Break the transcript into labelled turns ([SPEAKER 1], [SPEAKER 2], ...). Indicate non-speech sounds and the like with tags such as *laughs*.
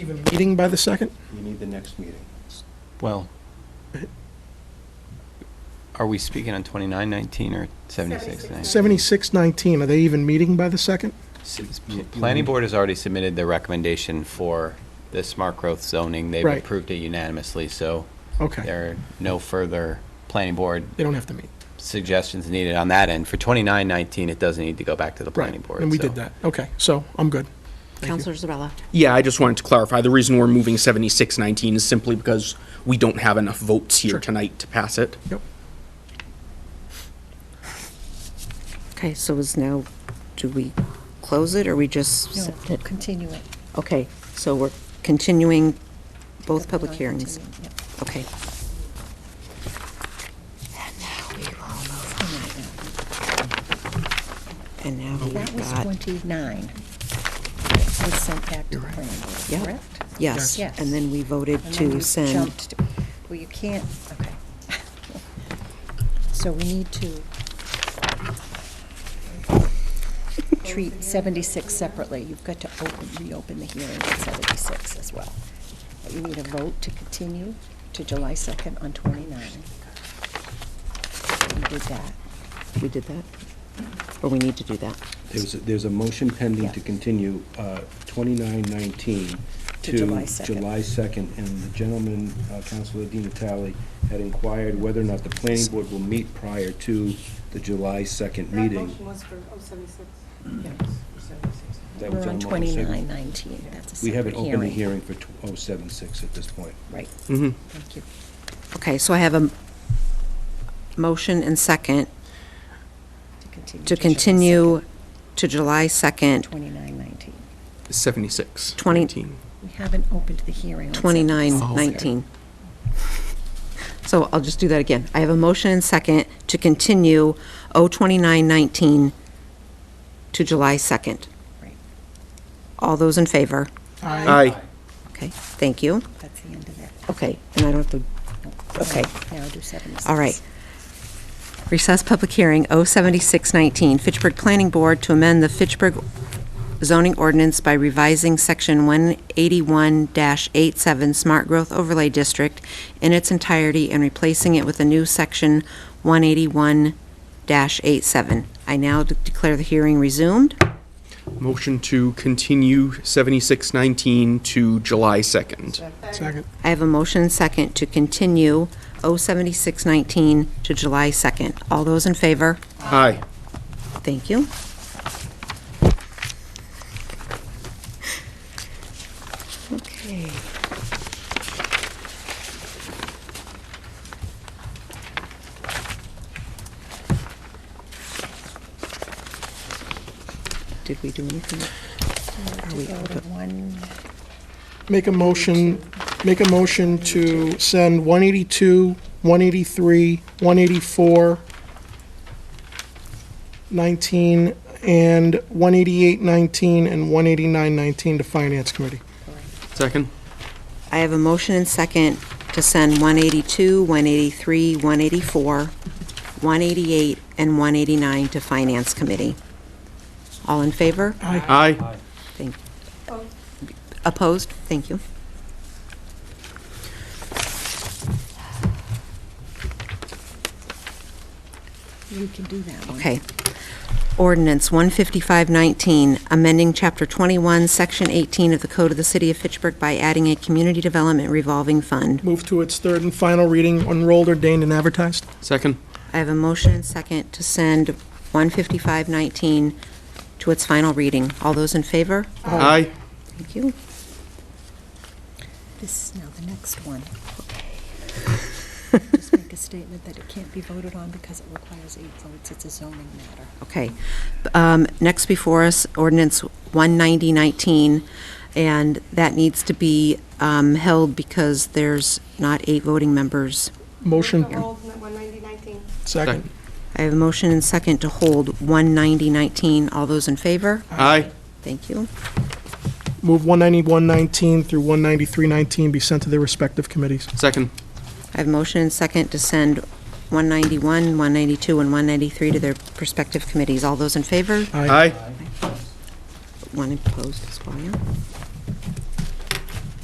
[SPEAKER 1] the meeting by the second?
[SPEAKER 2] You need the next meeting.
[SPEAKER 3] Well, are we speaking on 2919 or 7619?
[SPEAKER 1] Seventy-six nineteen, are they even meeting by the second?
[SPEAKER 3] Planning Board has already submitted their recommendation for the smart growth zoning. They've
[SPEAKER 1] Right.
[SPEAKER 3] approved it unanimously, so
[SPEAKER 1] Okay,
[SPEAKER 3] there are no further Planning Board
[SPEAKER 1] they don't have to meet.
[SPEAKER 3] suggestions needed on that end. For 2919, it doesn't need to go back to the
[SPEAKER 1] Right,
[SPEAKER 3] Planning Board.
[SPEAKER 1] and we
[SPEAKER 3] so-
[SPEAKER 1] did that. Okay, so I'm good. Thank you.
[SPEAKER 4] Counselor Zabala.
[SPEAKER 5] Yeah, I just wanted to clarify, the reason we're moving 7619 is simply because we don't have enough votes
[SPEAKER 1] Sure.
[SPEAKER 5] here tonight to pass it.
[SPEAKER 1] Yep.
[SPEAKER 4] Okay, so is now, do we close it or we just?
[SPEAKER 6] No,
[SPEAKER 4] accept
[SPEAKER 6] we'll
[SPEAKER 4] it?
[SPEAKER 6] continue it.
[SPEAKER 4] Okay, so we're continuing both public hearings.
[SPEAKER 6] Continue, yeah.
[SPEAKER 4] Okay. And now we will move
[SPEAKER 6] That
[SPEAKER 4] on. And
[SPEAKER 6] was
[SPEAKER 4] now we've got,
[SPEAKER 6] 29. That was sent back to the planning
[SPEAKER 4] Yep.
[SPEAKER 6] board, correct?
[SPEAKER 4] yes,
[SPEAKER 6] Yes.
[SPEAKER 4] and then we voted
[SPEAKER 6] And then
[SPEAKER 4] to
[SPEAKER 6] you
[SPEAKER 4] send,
[SPEAKER 6] jumped to- Well, you can't, okay. *laughs* So we need
[SPEAKER 4] *laughs*
[SPEAKER 6] to treat 76 separately. You've got to open, reopen the hearing on 76 as well. But you need a vote to continue to July 2nd on 29. You did that.
[SPEAKER 4] we did that? Or we need to do that?
[SPEAKER 2] There's, a- there's a motion pending
[SPEAKER 6] Yeah.
[SPEAKER 2] to continue uh, 2919
[SPEAKER 6] To
[SPEAKER 2] to
[SPEAKER 6] July 2nd.
[SPEAKER 2] July 2nd, and the gentleman, uh, Councilor Dean Talley, had inquired whether or not the planning board will meet prior to the July 2nd
[SPEAKER 7] That
[SPEAKER 2] meeting.
[SPEAKER 7] motion was for 076.
[SPEAKER 2] That was
[SPEAKER 6] We're on
[SPEAKER 2] the motion.
[SPEAKER 6] 2919. That's a
[SPEAKER 2] We haven't
[SPEAKER 6] separate hearing.
[SPEAKER 2] opened the hearing for tw- 076 at this point.
[SPEAKER 6] Right.
[SPEAKER 5] Mhm.
[SPEAKER 6] Thank you.
[SPEAKER 4] Okay, so I have a m- motion and second to continue to July 2nd,
[SPEAKER 6] 2919.
[SPEAKER 5] 76.
[SPEAKER 4] Twenty-
[SPEAKER 5] 19.
[SPEAKER 6] We haven't opened the hearing on
[SPEAKER 4] 2919. So I'll just do that again. I have a motion and second to continue 02919 to July 2nd.
[SPEAKER 6] Right.
[SPEAKER 4] All those in favor?
[SPEAKER 5] Aye.
[SPEAKER 4] Okay, thank you.
[SPEAKER 6] That's the end of it.
[SPEAKER 4] Okay, and I don't have to, Okay.
[SPEAKER 6] Now do 76.
[SPEAKER 4] all right. Recess public hearing 07619, Fitchburg Planning Board to amend the Fitchburg zoning ordinance by revising Section 181-87 Smart Growth Overlay District in its entirety and replacing it with a new Section 181-87. I now de- declare the hearing resumed.
[SPEAKER 5] Motion to continue 7619 to July 2nd.
[SPEAKER 1] Second,
[SPEAKER 4] I have a motion and second to continue 07619 to July 2nd. All those in favor?
[SPEAKER 5] Aye.
[SPEAKER 4] Thank you. Okay. Did we do anything? Are we-
[SPEAKER 6] Go to one,
[SPEAKER 1] make a motion, make a motion to send one eighty-two, one eighty-three, one eighty-four, nineteen, and one eighty-eight nineteen, and one eighty-nine nineteen to Finance Committee.
[SPEAKER 5] Second?
[SPEAKER 4] I have a motion and second to send 182, 183, 184, 188, and 189 to Finance Committee. All in favor?
[SPEAKER 5] Aye.
[SPEAKER 4] Thank- Opposed? Thank you.
[SPEAKER 6] you can do that one.
[SPEAKER 4] Okay. Ordinance 15519, amending Chapter 21, Section 18 of the Code of the City of Fitchburg by adding a community development revolving fund.
[SPEAKER 1] Move to its third and final reading, enrolled, ordained, and advertised.
[SPEAKER 5] Second?
[SPEAKER 4] I have a motion and second to send 15519 to its final reading. All those in favor?
[SPEAKER 5] Aye.
[SPEAKER 4] Thank you.
[SPEAKER 6] This, now the next one. Just make a statement that it can't be voted on because it requires eight votes. It's a zoning matter.
[SPEAKER 4] Okay. Um, Next before us, ordinance 19019, and that needs to be um, held because there's not eight voting members.
[SPEAKER 1] Motion,
[SPEAKER 7] Move to hold 19019.
[SPEAKER 1] second.
[SPEAKER 4] I have a motion and second to hold 19019. All those in favor?
[SPEAKER 5] Aye.
[SPEAKER 4] Thank you.
[SPEAKER 1] Move one ninety-one nineteen through one ninety-three nineteen be sent to their respective committees.
[SPEAKER 5] Second?
[SPEAKER 4] I have a motion and second to send 191, 192, and 193 to their prospective committees. All those in favor?
[SPEAKER 5] Aye.
[SPEAKER 4] One opposed as well, yeah.